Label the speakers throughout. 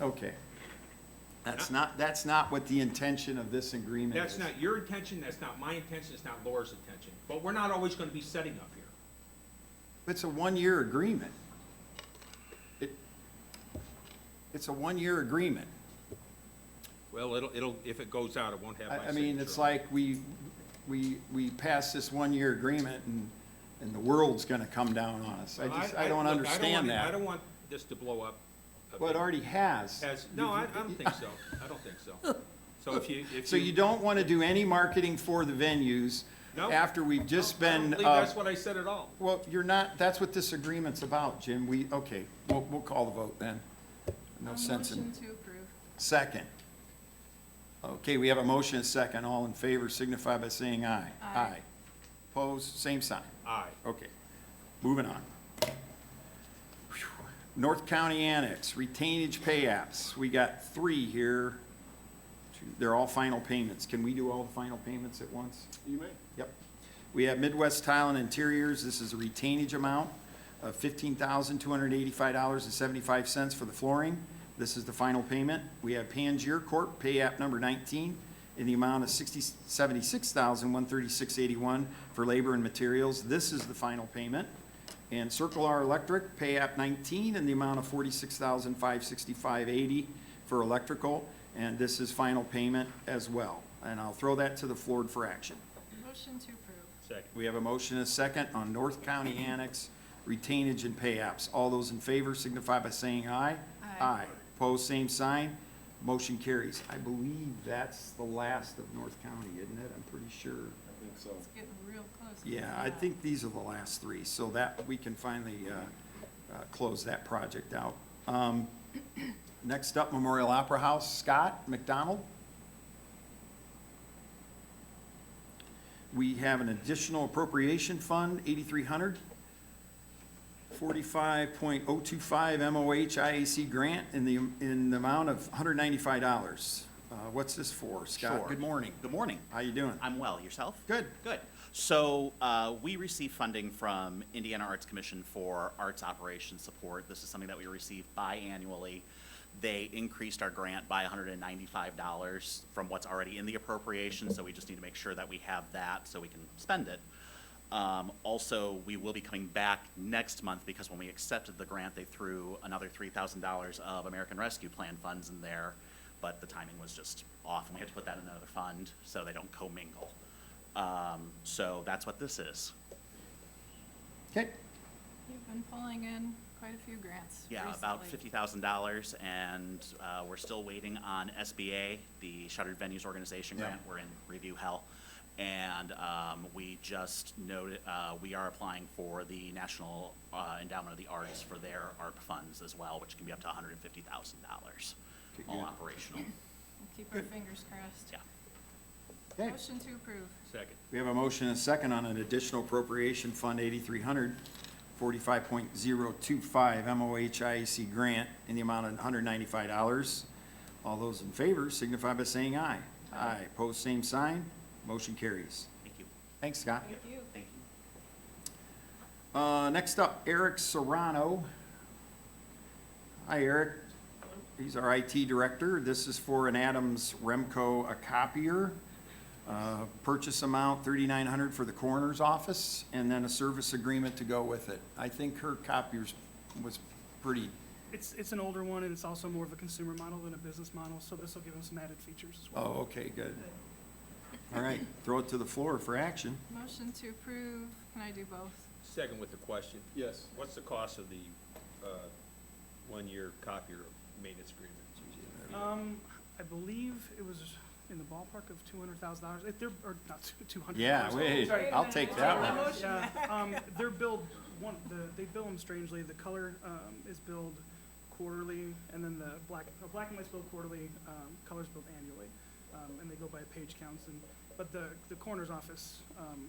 Speaker 1: Okay. That's not, that's not what the intention of this agreement is.
Speaker 2: That's not your intention, that's not my intention, it's not Laura's intention, but we're not always gonna be setting up here.
Speaker 1: It's a one-year agreement. It, it's a one-year agreement.
Speaker 2: Well, it'll, it'll, if it goes out, it won't have my
Speaker 1: I, I
Speaker 2: signature.
Speaker 1: mean, it's
Speaker 2: on it.
Speaker 1: like we, we, we pass this one-year agreement and, and the world's gonna come down on us. I just, I don't
Speaker 2: look,
Speaker 1: understand
Speaker 2: want- I
Speaker 1: that.
Speaker 2: don't want this to blow up. a
Speaker 1: Well, it
Speaker 2: bit.
Speaker 1: already has.
Speaker 2: As, no, I, I don't think so, I don't think so. So if you, if
Speaker 1: So you don't wanna do any marketing for the venues
Speaker 2: No.
Speaker 1: after we've just
Speaker 2: I don't
Speaker 1: been,
Speaker 2: believe
Speaker 1: uh,
Speaker 2: that's what I said at all.
Speaker 1: Well, you're not, that's what this agreement's about, Jim. We, okay, we'll, we'll call the vote then. No sense in,
Speaker 3: Motion to approve.
Speaker 1: second. Okay, we have a motion and a second. All in favor signify by saying aye.
Speaker 3: Aye.
Speaker 1: Opposed, same sign.
Speaker 2: Aye.
Speaker 1: Okay, moving on. Phew. North County Annex, retainage pay apps. We got three here. Two- They're all final payments. Can we do all the final payments at once?
Speaker 4: You may.
Speaker 1: Yep. We have Midwest Tile and Interiors, this is a retainage amount of fifteen thousand, two hundred eighty-five dollars and seventy-five cents for the flooring. This is the final payment. We have Pangier Corp., pay app number nineteen, in the amount of sixty, seventy-six thousand, one thirty-six eighty-one for labor and materials. This is the final payment. And Circle R Electric, pay app nineteen, in the amount of forty-six thousand, five sixty-five eighty for electrical. And this is final payment as well. And I'll throw that to the floor for action.
Speaker 3: Motion to approve.
Speaker 2: Second.
Speaker 1: We have a motion and a second on North County Annex retainage and pay apps. All those in favor signify by saying aye.
Speaker 3: Aye.
Speaker 1: Opposed, same sign. Motion carries. I believe that's the last of North County, isn't it? I'm pretty sure.
Speaker 4: I think so.
Speaker 3: It's getting real close.
Speaker 1: Yeah, I think these are the last three, so that, we can finally uh, uh, close that project out. Um, Next up, Memorial Opera House, Scott McDonald. We have an additional appropriation fund, 8,300, 45.025 MOH IAC grant in the, in the amount of $195. Uh, What's this for, Scott?
Speaker 5: Sure.
Speaker 1: Good morning.
Speaker 5: Good morning.
Speaker 1: How you doing?
Speaker 5: I'm well. Yourself?
Speaker 1: Good.
Speaker 5: Good. So uh, we receive funding from Indiana Arts Commission for arts operations support. This is something that we receive biannually. They increased our grant by $195 from what's already in the appropriation, so we just need to make sure that we have that so we can spend it. Um, Also, we will be coming back next month because when we accepted the grant, they threw another $3,000 of American Rescue Plan funds in there, but the timing was just off, and we had to put that in another fund so they don't commingle. Um, So that's what this is.
Speaker 1: Okay.
Speaker 3: You've been pulling in quite a few grants
Speaker 5: Yeah, about
Speaker 3: recently.
Speaker 5: $50,000, and uh, we're still waiting on SBA, the Shuttered Venues Organization
Speaker 1: Yeah.
Speaker 5: Grant. We're in review hell. And um, we just noted, uh, we are applying for the National uh, Endowment of the Arts for their ARP funds as well, which can be up to $150,000,
Speaker 1: Okay,
Speaker 5: all
Speaker 1: good.
Speaker 5: operational.
Speaker 3: We'll Keep our fingers crossed.
Speaker 5: Yeah.
Speaker 1: Okay.
Speaker 3: Motion to approve.
Speaker 2: Second.
Speaker 1: We have a motion and a second on an additional appropriation fund 8,300, 45.025 MOH IAC E grant in the amount of $195. All those in favor signify by saying aye. Aye. Pose same sign. Motion carries.
Speaker 5: Thank you.
Speaker 1: Thanks, Scott.
Speaker 3: Thank you.
Speaker 5: Thank you.
Speaker 1: Uh, Next up, Eric Serrano. Hi, Eric. He's our IT director. This is for an Adams Remco a copier. Uh, Purchase amount 3,900 for the coroner's office, and then a service agreement to go with it. I think her copiers was pretty,
Speaker 6: It's, it's an older one, and it's also more of a consumer model than a business model, so this will give them some added features as well.
Speaker 1: oh, okay, good. All right, throw it to the floor for action.
Speaker 3: Motion to approve. Can I do both?
Speaker 2: Second with the question.
Speaker 4: Yes.
Speaker 2: What's the cost of the, uh, one-year copier maintenance agreement?
Speaker 6: Um,
Speaker 1: Oh.
Speaker 6: I believe it was in the ballpark of two hundred thousand dollars, they're, or not two hundred.
Speaker 1: Yeah, wait, I'll take that one.
Speaker 6: Yeah, um, they're billed, one, the, they bill them strangely, the color, um, is billed quarterly, and then the black, the black and white's billed quarterly, um, color's billed annually. Um, and they go by page counts, and, but the, the coroner's office, um,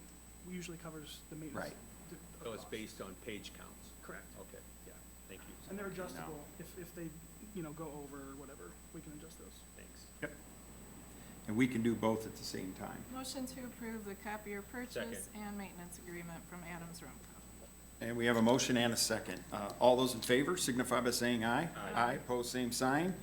Speaker 6: usually covers the maintenance.
Speaker 1: Right.
Speaker 6: th- of
Speaker 2: So it's
Speaker 6: cost.
Speaker 2: based on page counts?
Speaker 6: Correct.
Speaker 2: Okay, yeah, thank you,
Speaker 6: And they're adjustable, if, if they, you know, go over or whatever, we can adjust those.
Speaker 2: thanks.
Speaker 1: And we can do both at the same time.
Speaker 3: Motion to approve the copier purchase and maintenance agreement from Adams Rumco.
Speaker 1: And we have a motion and a second. Uh, All those in favor signify by saying aye. Aye, pose same sign.